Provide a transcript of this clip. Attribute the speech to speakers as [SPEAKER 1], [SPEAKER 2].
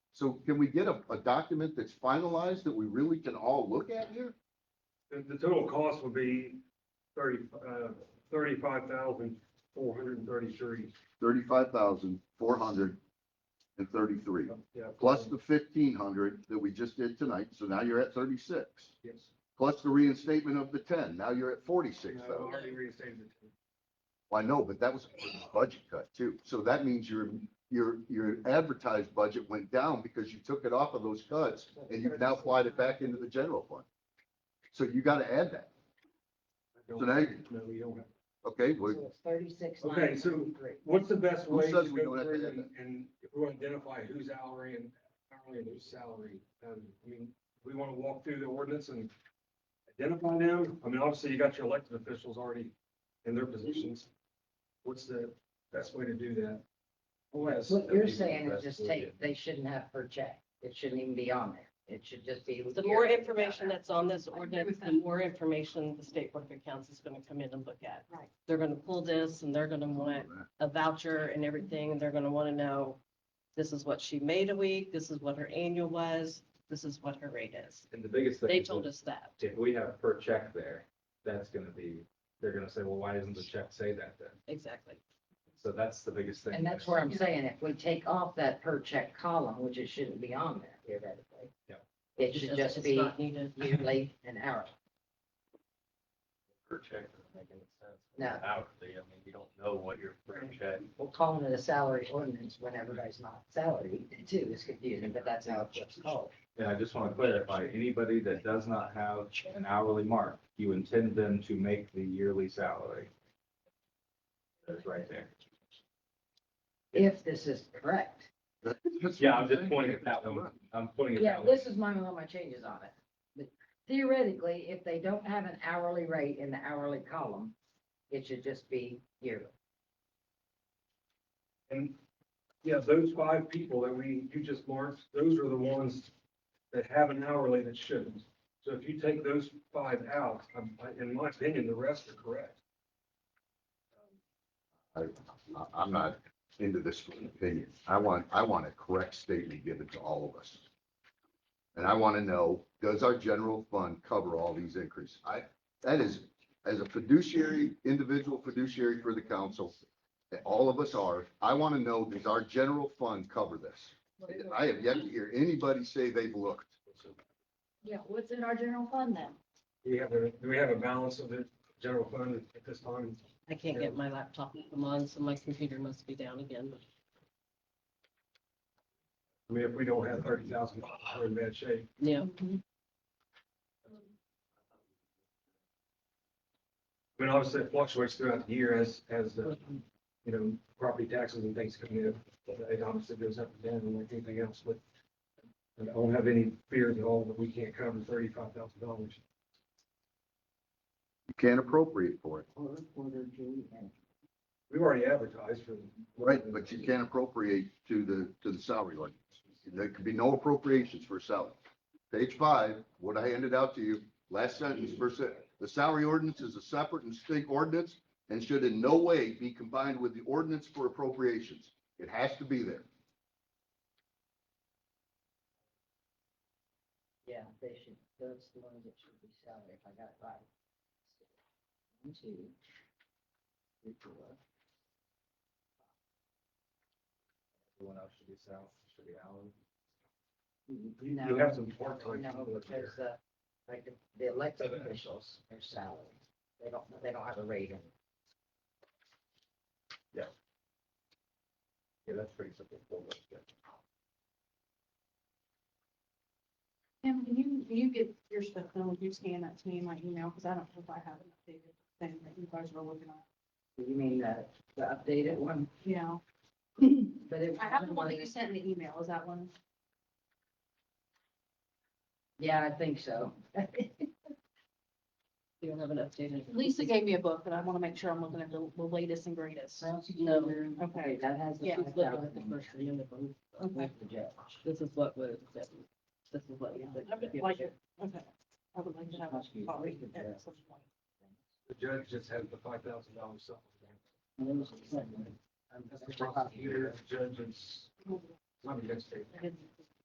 [SPEAKER 1] So can we get a, a document that's finalized that we really can all look at here?
[SPEAKER 2] The, the total cost would be thirty, uh, thirty-five thousand, four hundred and thirty-three.
[SPEAKER 1] Thirty-five thousand, four hundred and thirty-three, plus the fifteen hundred that we just did tonight, so now you're at thirty-six.
[SPEAKER 2] Yes.
[SPEAKER 1] Plus the reinstatement of the ten, now you're at forty-six
[SPEAKER 2] No,
[SPEAKER 1] thousand.
[SPEAKER 2] Already reinstated it.
[SPEAKER 1] I know, but that was a budget cut too. So that means your, your, your advertised budget went down because you took it off of those cuts and you've now applied it back into the general fund. So you gotta add that,
[SPEAKER 2] No,
[SPEAKER 1] So now you-
[SPEAKER 2] we don't have.
[SPEAKER 1] okay? Well,
[SPEAKER 3] So it's thirty-six.
[SPEAKER 2] Okay,
[SPEAKER 3] nine
[SPEAKER 2] so-
[SPEAKER 3] ninety-three.
[SPEAKER 2] What's the best
[SPEAKER 1] Who
[SPEAKER 2] way to go
[SPEAKER 1] says we don't
[SPEAKER 2] through
[SPEAKER 1] have to add
[SPEAKER 2] and, and if we want to identify who's hourly and hourly and who's salary? Um, I mean, we want to walk through the ordinance and identify them. I mean, obviously you got your elected officials already in their positions. What's the best way to do that?
[SPEAKER 3] What you're saying is just take, they shouldn't have per check. It shouldn't even be on there. It should just be.
[SPEAKER 4] The more information that's on this ordinance, the more information the state board of accounts is gonna come in and look at.
[SPEAKER 3] Right.
[SPEAKER 4] They're gonna pull this and they're gonna want a voucher and everything, and they're gonna wanna know, this is what she made a week, this is what her annual was, this is what her rate is.
[SPEAKER 5] And the biggest thing.
[SPEAKER 4] They
[SPEAKER 5] is
[SPEAKER 4] told
[SPEAKER 5] that
[SPEAKER 4] us that.
[SPEAKER 5] If we have per check there, that's gonna be, they're gonna say, well, why doesn't the check say that then?
[SPEAKER 4] Exactly.
[SPEAKER 5] So that's the biggest thing.
[SPEAKER 3] And that's where I'm saying if we take off that per check column, which it shouldn't be on there theoretically.
[SPEAKER 5] Yeah.
[SPEAKER 3] It should
[SPEAKER 4] It's-
[SPEAKER 3] just
[SPEAKER 4] it's
[SPEAKER 3] be
[SPEAKER 4] not needed.
[SPEAKER 3] yearly and hourly.
[SPEAKER 5] Per check doesn't make any sense.
[SPEAKER 3] No.
[SPEAKER 5] Hourly, I mean, you don't know what your per check.
[SPEAKER 3] We're calling it a salary ordinance when everybody's not salary too. It's confusing, but that's how it's called.
[SPEAKER 5] And I just wanna clarify, anybody that does not have an hourly mark, you intend them to make the yearly salary. That's right there.
[SPEAKER 3] If this is correct.
[SPEAKER 1] that's what
[SPEAKER 5] Yeah, I'm just
[SPEAKER 1] saying.
[SPEAKER 5] pointing at that one. I'm pointing at
[SPEAKER 3] Yeah,
[SPEAKER 5] that one.
[SPEAKER 3] this is my, all my changes on it. But Theoretically, if they don't have an hourly rate in the hourly column, it should just be yearly.
[SPEAKER 2] And, yeah, those five people that we, you just marked, those are the ones that have an hourly that shouldn't. So if you take those five out, um, I- in my opinion, the rest are correct.
[SPEAKER 1] I- I'm not into this for an opinion. I want, I want a correct statement given to all of us. And I want to know, does our general fund cover all these increases? I, that is, as a fiduciary, individual fiduciary for the council, that all of us are, I want to know, does our general fund cover this? I have yet to hear anybody say they've looked.
[SPEAKER 6] Yeah, what's in our general fund then?
[SPEAKER 2] Do we have, a- do we have a balance of the general fund at this time?
[SPEAKER 4] I can't get my laptop to come on, so my computer must be down again.
[SPEAKER 2] I mean, if we don't have thirty thousand, we're in bad shape.
[SPEAKER 4] Yeah,
[SPEAKER 2] I mean, obviously it fluctuates throughout the year as, as, uh, you know, property taxes and things come in. It obviously goes up and down like anything else, but I don't have any fears at all that we can't cover thirty-five thousand dollars.
[SPEAKER 1] You can't appropriate for it.
[SPEAKER 3] Quarter, quarter, June, and
[SPEAKER 2] We've already advertised for.
[SPEAKER 1] Right, but you can't appropriate to the, to the salary line. There could be no appropriations for salary. Page five, what I handed out to you, last sentence, first sentence, the salary ordinance is a separate and distinct ordinance and should in no way be combined with the ordinance for appropriations. It has to be there.
[SPEAKER 3] Yeah, they should, that's the ones that should be salary, if I got it right. One, two, three, four.
[SPEAKER 5] Everyone else should be south, should be hourly.
[SPEAKER 3] Mm,
[SPEAKER 2] You-
[SPEAKER 3] no,
[SPEAKER 2] You have some part-time
[SPEAKER 3] No,
[SPEAKER 2] people up there.
[SPEAKER 3] because, uh, like, the- the elected officials, their salary, they don't, they don't have a rate in it.
[SPEAKER 5] Yeah, that's pretty simple. We'll look at it.
[SPEAKER 6] Kim, can you, can you get your stuff done, Would you scan that to me in my email, because I don't know if I have an updated thing that you guys were looking at.
[SPEAKER 3] You mean the, the updated one?
[SPEAKER 6] Yeah.
[SPEAKER 3] But it
[SPEAKER 6] I have
[SPEAKER 3] wasn't
[SPEAKER 6] the
[SPEAKER 3] one
[SPEAKER 6] one that
[SPEAKER 3] of
[SPEAKER 6] you
[SPEAKER 3] these.
[SPEAKER 6] sent in the email, is that one?
[SPEAKER 3] Yeah, I think so.
[SPEAKER 4] you don't have an updated.
[SPEAKER 6] Lisa gave me a book, and I want to make sure I'm looking at the the latest and greatest.
[SPEAKER 4] No.
[SPEAKER 3] Okay, that has. the
[SPEAKER 6] Yeah.
[SPEAKER 4] She's looking at the
[SPEAKER 3] 5,000
[SPEAKER 4] first reading of them.
[SPEAKER 3] with the judge.
[SPEAKER 4] This is what was, this is what. we-
[SPEAKER 6] I would like it, okay. I would like to have
[SPEAKER 3] Must be-
[SPEAKER 6] a copy at some point.
[SPEAKER 2] The judge just has the five thousand dollars supplement.
[SPEAKER 3] And it was the same one.
[SPEAKER 2] And that's the problem here, the judge is, it's not a good statement.
[SPEAKER 6] I didn't-